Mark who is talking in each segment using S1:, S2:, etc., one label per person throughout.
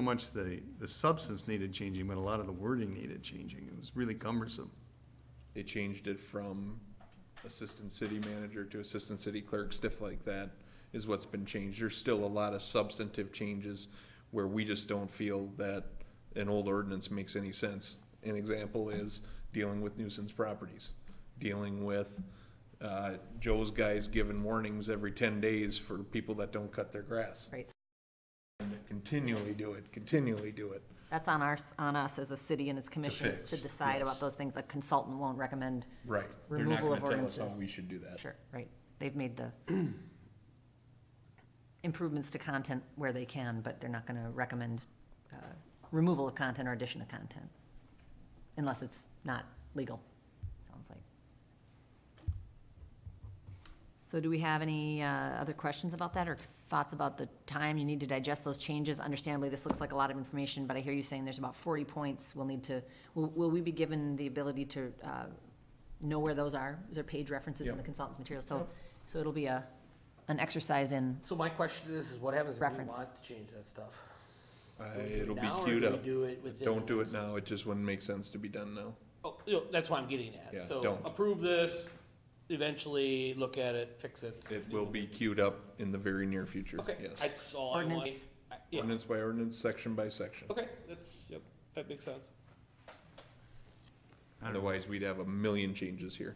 S1: so much the, the substance needed changing, but a lot of the wording needed changing. It was really cumbersome.
S2: They changed it from assistant city manager to assistant city clerk, stuff like that is what's been changed. There's still a lot of substantive changes where we just don't feel that an old ordinance makes any sense. An example is dealing with nuisance properties, dealing with, uh, Joe's guys giving warnings every ten days for people that don't cut their grass.
S3: Right,
S2: Continually do it, continually do it.
S3: that's on our, on us as a city and its commissions
S2: fix,
S3: to decide about
S2: yes.
S3: those things. A consultant won't recommend,
S2: Right. They're not
S3: Removal
S2: gonna
S3: of
S2: tell us how
S3: ordinances.
S2: we should do that.
S3: sure, right, they've made the improvements to content where they can, but they're not gonna recommend, uh, removal of content or addition of content, unless it's not legal, sounds like. So do we have any uh, other questions about that or thoughts about the time you need to digest those changes? Understandably, this looks like a lot of information, but I hear you saying there's about 40 points. We'll need to, will will we be given the ability to uh, know where those are? Is there page references in the
S2: Yep.
S3: consultant's material? So, so it'll be a, an exercise in,
S4: So my question is, is what happens if we
S3: Reference.
S4: want to change that stuff?
S2: I-
S4: Do we do it
S2: Uh, It'll be
S4: now, or
S2: queued
S4: do we
S2: up.
S4: do it within
S2: Don't
S4: the
S2: do it
S4: next-
S2: now, it just wouldn't make sense to be done now.
S4: Oh, you know, that's what I'm getting at.
S2: Yeah,
S4: So
S2: don't.
S4: approve this, eventually look at it, fix it.
S2: It will be queued up in the very near future,
S4: Okay,
S2: yes.
S4: that's all I want.
S3: Ordinance.
S4: I- yeah.
S2: Ordinance by ordinance, section by section.
S4: Okay, that's, yep, that makes sense.
S2: Otherwise, we'd have a million changes here.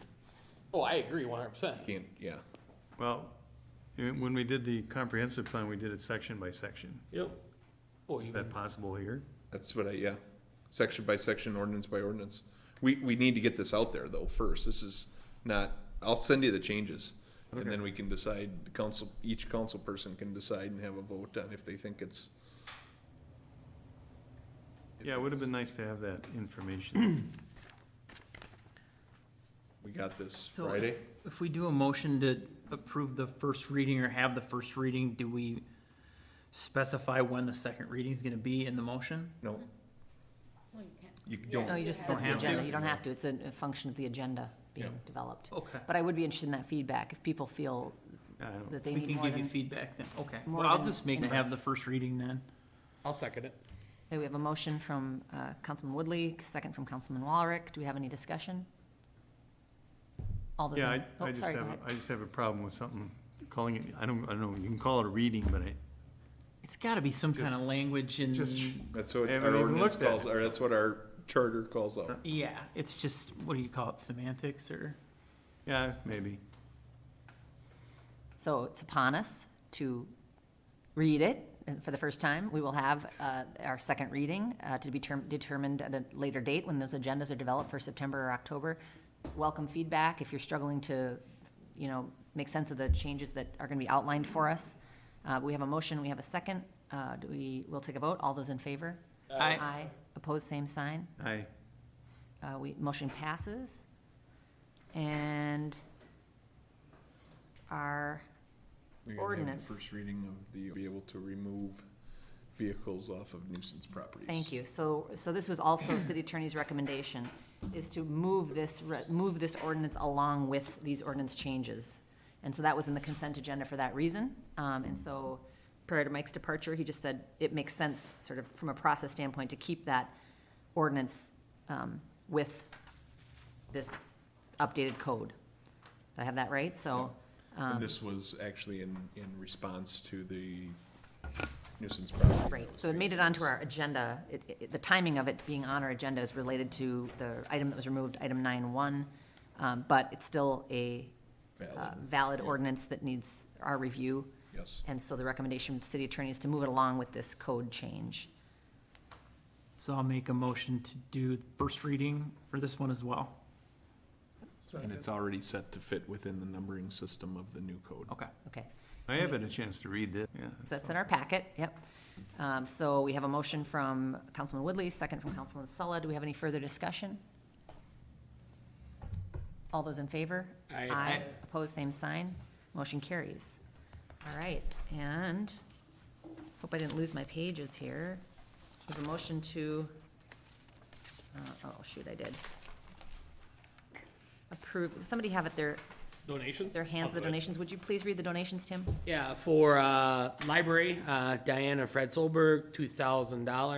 S4: Oh, I agree one hundred percent.
S2: Can't, yeah.
S1: Well, eh, when we did the comprehensive plan, we did it section by section.
S4: Yep. Boy,
S1: Is
S4: Oh, you
S1: that possible here?
S2: That's what I, yeah, section by section, ordinance by ordinance. We, we need to get this out there though first, this is not, I'll send you the changes. And then we can decide, the council, each council person can decide and have a vote on if they think it's. if
S1: Yeah, it would have
S2: it's-
S1: been nice to have that information.
S2: We got this
S5: So if-
S2: Friday,
S5: If we do a motion to approve the first reading or have the first reading, do we specify when the second reading is gonna be in the motion?
S2: no,
S6: Well, you can't.
S2: you
S3: no,
S2: don't,
S3: oh, you just
S5: Don't
S3: set the
S5: have to.
S3: agenda. You don't have to, it's a a function of the agenda being
S2: Yeah.
S3: developed.
S5: Okay.
S3: But I would be interested in that feedback, if people feel
S1: I don't-
S3: that they
S5: We
S3: need
S5: can
S3: more
S5: give you
S3: than.
S5: feedback then, okay.
S3: more
S5: Well, I'll
S3: than
S5: just make it
S3: input.
S5: have the first reading then.
S4: I'll second it.
S3: Okay, we have a motion from uh, Councilman Woodley, second from Councilman Walrick. Do we have any discussion? All those in.
S1: Yeah, I,
S3: oh,
S1: I just
S3: sorry, go
S1: have,
S3: ahead.
S1: I just have a problem with something, calling it, I don't, I don't know, you can call it a reading, but I,
S5: It's gotta be some
S1: Just-
S5: kind of language in,
S1: just,
S2: that's what
S1: Haven't
S2: our
S1: even
S2: ordinance
S1: looked at
S2: calls,
S1: it,
S2: or that's what our charter calls out.
S5: yeah, it's just, what do you call it, semantics or?
S1: yeah, maybe.
S3: So it's upon us to read it and for the first time. We will have uh, our second reading uh, to be term- determined at a later date when those agendas are developed for September or October. Welcome feedback if you're struggling to, you know, make sense of the changes that are going to be outlined for us. Uh, We have a motion, we have a second. Uh, Do we, we'll take a vote. All those in favor?
S4: Uh,
S5: Aye.
S3: Aye. Opposed, same sign.
S1: I,
S3: Uh, we, motion passes. And our,
S2: You're gonna have the
S3: Ordinance.
S2: First reading of the, be able to remove vehicles off of nuisance properties.
S3: thank you, so, so this was also city attorney's recommendation, is to move this, re- move this ordinance along with these ordinance changes. And so that was in the consent agenda for that reason, um, and so prior to Mike's departure, he just said it makes sense, sort of from a process standpoint, to keep that ordinance, um, with this updated code. Did I have that right? So, Um,
S2: And this was actually in, in response to the nuisance property.
S3: Right, so it made it onto our agenda. It- it- The timing of it being on our agenda is related to the item that was removed, item nine one. um, But it's still a uh,
S2: Valid,
S3: valid
S2: yeah.
S3: ordinance that needs our review.
S2: Yes,
S3: And so the recommendation of the city attorney is to move it along with this code change.
S5: So I'll make a motion to do first reading for this one as well.
S2: and it's already set to fit within the numbering system of the new code.
S5: Okay.
S3: Okay.
S1: I haven't had a chance to read this, yeah.
S3: So that's in our packet, yep. Um, So we have a motion from Councilman Woodley, second from Councilman Sulla. Do we have any further discussion? All those in favor?
S4: Aye.
S3: Opposed, same sign. Motion carries. All right, and hope I didn't lose my pages here. We have a motion to, uh, oh, shoot, I did. Approve, does somebody have it there,
S4: donations?
S3: Their hands,
S4: I'll
S3: the
S4: do it.
S3: donations. Would you please read the donations, Tim?
S4: Yeah, for, uh, library, uh, Diana Fred Solberg, two thousand dollars.